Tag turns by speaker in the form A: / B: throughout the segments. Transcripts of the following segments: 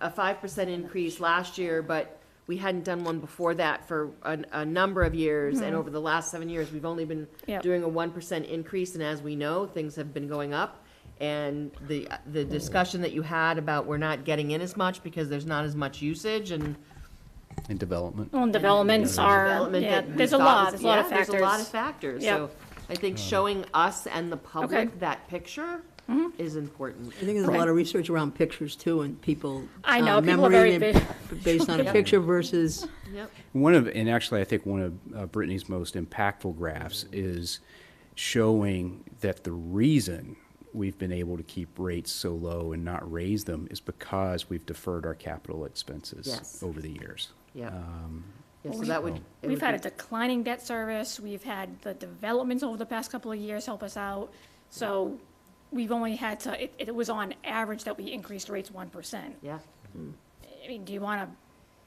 A: a five percent increase last year, but we hadn't done one before that for a, a number of years, and over the last seven years, we've only been
B: Mm-hmm. Yep.
A: doing a one percent increase, and as we know, things have been going up. And the, the discussion that you had about we're not getting in as much because there's not as much usage and
C: in development.
B: Well, and developments are,
A: development
B: yeah,
A: that we
B: there's a
A: thought
B: lot,
A: was-
B: there's a lot of
A: yeah, There's a lot of factors,
B: factors. Yep.
A: so I think showing us and the public that picture
B: Mm-hmm.
A: is important.
D: I think there's a lot of research around pictures too, and people.
B: I know,
D: um,
B: people are
D: memory
B: very
D: and it Based on a picture versus,
A: Yep.
C: One of, and actually, I think one of uh, Brittany's most impactful graphs is showing that the reason we've been able to keep rates so low and not raise them is because we've deferred our capital expenses
A: Yes.
C: over the years.
A: Yep.
C: Um,
A: Yeah, so that would. it would
B: We've had
A: be-
B: a declining debt service, we've had the developments over the past couple of years help us out. So we've only had to, it, it was on average that we increased rates one percent.
A: Yeah,
B: I mean, do you want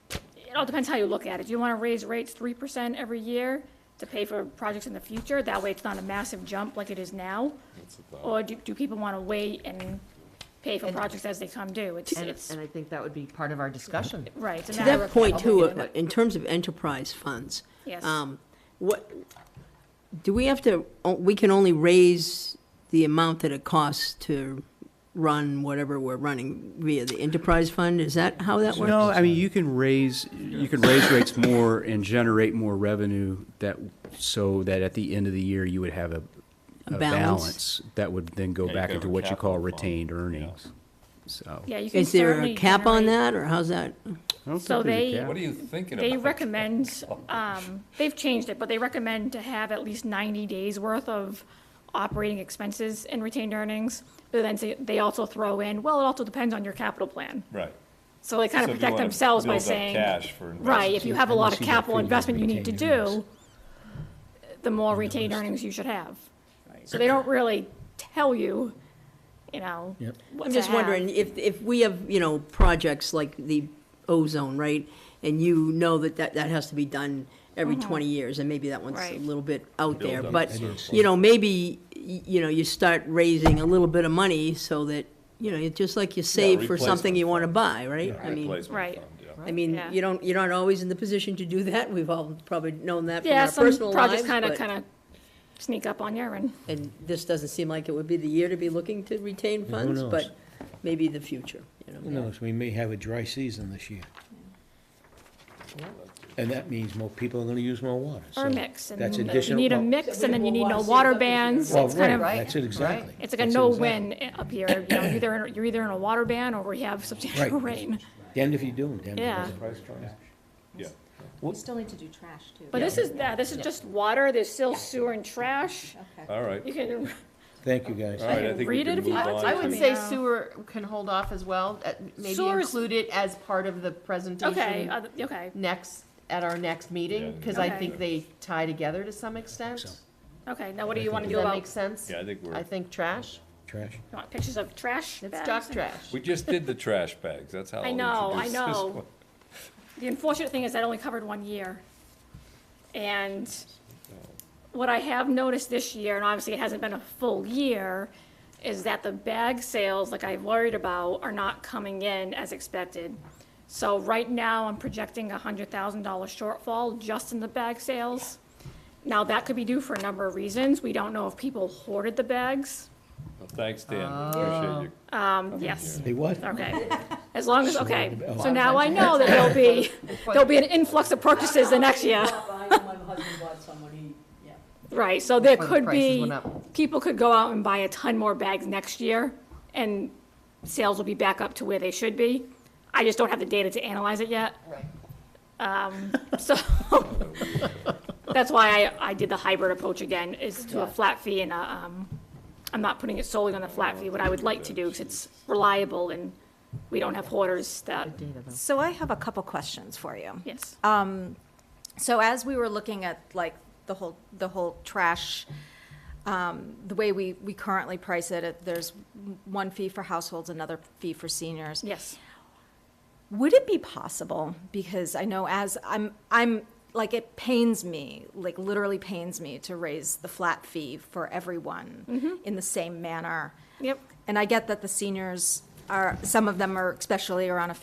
B: to, it all depends how you look at it. Do you want to raise rates three percent every year to pay for projects in the future? That way it's not a massive jump like it is now? Or do, do people want to wait and pay for projects as they come due? It's,
A: and,
B: it's,
A: and I think that would be part of our discussion.
B: right. it's a
D: to
B: matter
D: that
B: of
D: point too,
B: opinion.
D: uh, in terms of enterprise funds.
B: Yes.
D: um, What, do we have to, oh, we can only raise the amount that it costs to run whatever we're running via the enterprise fund? Is that how that works?
C: No, I mean, you can raise, you can raise rates more and generate more revenue that, so that at the end of the year, you would have a,
D: A
C: a
D: balance.
C: balance that would then go
E: Yeah, you
C: back
E: could have
C: into
E: a
C: what you call
E: capital fund,
C: retained
E: yeah.
C: earnings, so.
B: Yeah, you can
D: Is there
B: certainly.
D: a cap on
B: generate-
D: that, or how's that?
C: I don't
B: So
C: think there's a
B: they-
C: cap.
E: What are you thinking about?
B: They recommend, um, they've changed it, but they recommend to have at least ninety days worth of operating expenses in retained earnings. But then say- they also throw in, well, it also depends on your capital plan.
E: Right.
B: So they kind of
E: So if you
B: protect
E: wanna
B: themselves by
E: build up
B: saying,
E: cash for
B: right, if you have a lot of
C: Unless you have
B: capital
C: food
B: investment you need to
C: retained earnings.
B: do, the more retained earnings you should have. So they don't really tell you, you know,
F: Yep.
B: what
D: I'm
B: to
D: just
B: have.
D: wondering if, if we have, you know, projects like the ozone, right? And you know that that, that has to be done every 20 years, and maybe that one's a
B: Mm-hmm. Right.
D: little bit out there.
E: Build up
D: But,
E: surplus.
D: you know, maybe, y- you know, you start raising a little bit of money so that, you know, it's just like you save for something
E: replacement
D: you want to
E: fund.
D: buy, right? I mean,
E: Replacement
B: Right.
E: fund, yeah.
D: I mean,
B: Yeah.
D: you don't, you're not always in the position to do that. We've all probably known that from
B: Yeah,
D: our
B: some
D: personal lives.
B: projects kind of,
D: but-
B: kind of sneak up on you and,
D: And this doesn't seem like it would be the year to be looking to retain
F: who
D: funds,
F: knows?
D: but maybe the future, you know?
F: Who knows, we may have a dry season this year. And that means more people are gonna use more water, so.
B: or a mix. and
F: That's
B: then You
F: additional-
B: need a
F: well-
B: mix and then you need no water bans.
F: Well,
B: It's kind
F: right,
B: of,
F: that's it, exactly.
B: it's like a
F: That's it,
B: no-win up here. You know, either, you're either in a water ban or we have substantial
F: Right.
B: rain.
F: exactly. Damned if you do, and damned if you
B: Yeah.
F: don't.
E: Yeah.
G: We still need to do trash too.
B: But this is, yeah, this is just water, there's still sewer and trash.
E: All right.
B: You can,
F: Thank you, guys.
E: All right, I think we
B: Read it
E: can
B: if you
E: move
B: want
E: on
B: to.
A: I would say
B: Yeah.
A: sewer can hold off as well, uh, maybe
B: Sewer's-
A: include it as part of the
B: okay,
A: presentation
B: other- okay,
A: next, at our next meeting,
E: Yeah,
A: because I
B: Okay.
A: think they tie together to some extent.
F: So.
A: Does
B: okay. Now what do you want to do
A: that
B: about,
A: make sense?
E: Yeah, I think we're-
A: I think trash,
F: Trash.
B: you want pictures of trash
A: it's
B: bags?
A: duck trash.
E: We just did the trash bags, that's how.
B: I
E: I'll
B: know, I
E: introduce this
B: know.
E: one.
B: The unfortunate thing is that only covered one year. And what I have noticed this year, and obviously it hasn't been a full year, is that the bag sales, like I worried about, are not coming in as expected. So right now, I'm projecting a hundred thousand dollar shortfall just in the bag sales. Now, that could be due for a number of reasons. We don't know if people hoarded the bags.
E: Well, Thanks, Dan, appreciate you.
B: Um, yes.
F: They what?
B: Okay, as long as, okay,
F: Oh.
B: so now I know that there'll be, there'll be an influx of purchases the next year. Right, so there
A: Before the
B: could
A: prices
B: be,
A: went up.
B: people could go out and buy a ton more bags next year, and sales will be back up to where they should be. I just don't have the data to analyze it yet.
A: Right.
B: Um, so, that's why I, I did the hybrid approach again, is to a flat fee and a, um, I'm not putting it solely on the flat fee, what I would like to do, because it's reliable and we don't have hoarders that,
A: Mm-hmm.
G: So I have a couple questions for you.
B: yes.
G: So as we were looking at like the whole, the whole trash, um, the way we, we currently price it, it, there's one fee for households, another fee for seniors.
B: Yes.
G: Would it be possible, because I know as, I'm, I'm, like, it pains me, like, literally pains me to raise the flat fee for everyone in the same manner.
B: Yep.
G: And I get that the seniors are, some of them are, especially are on a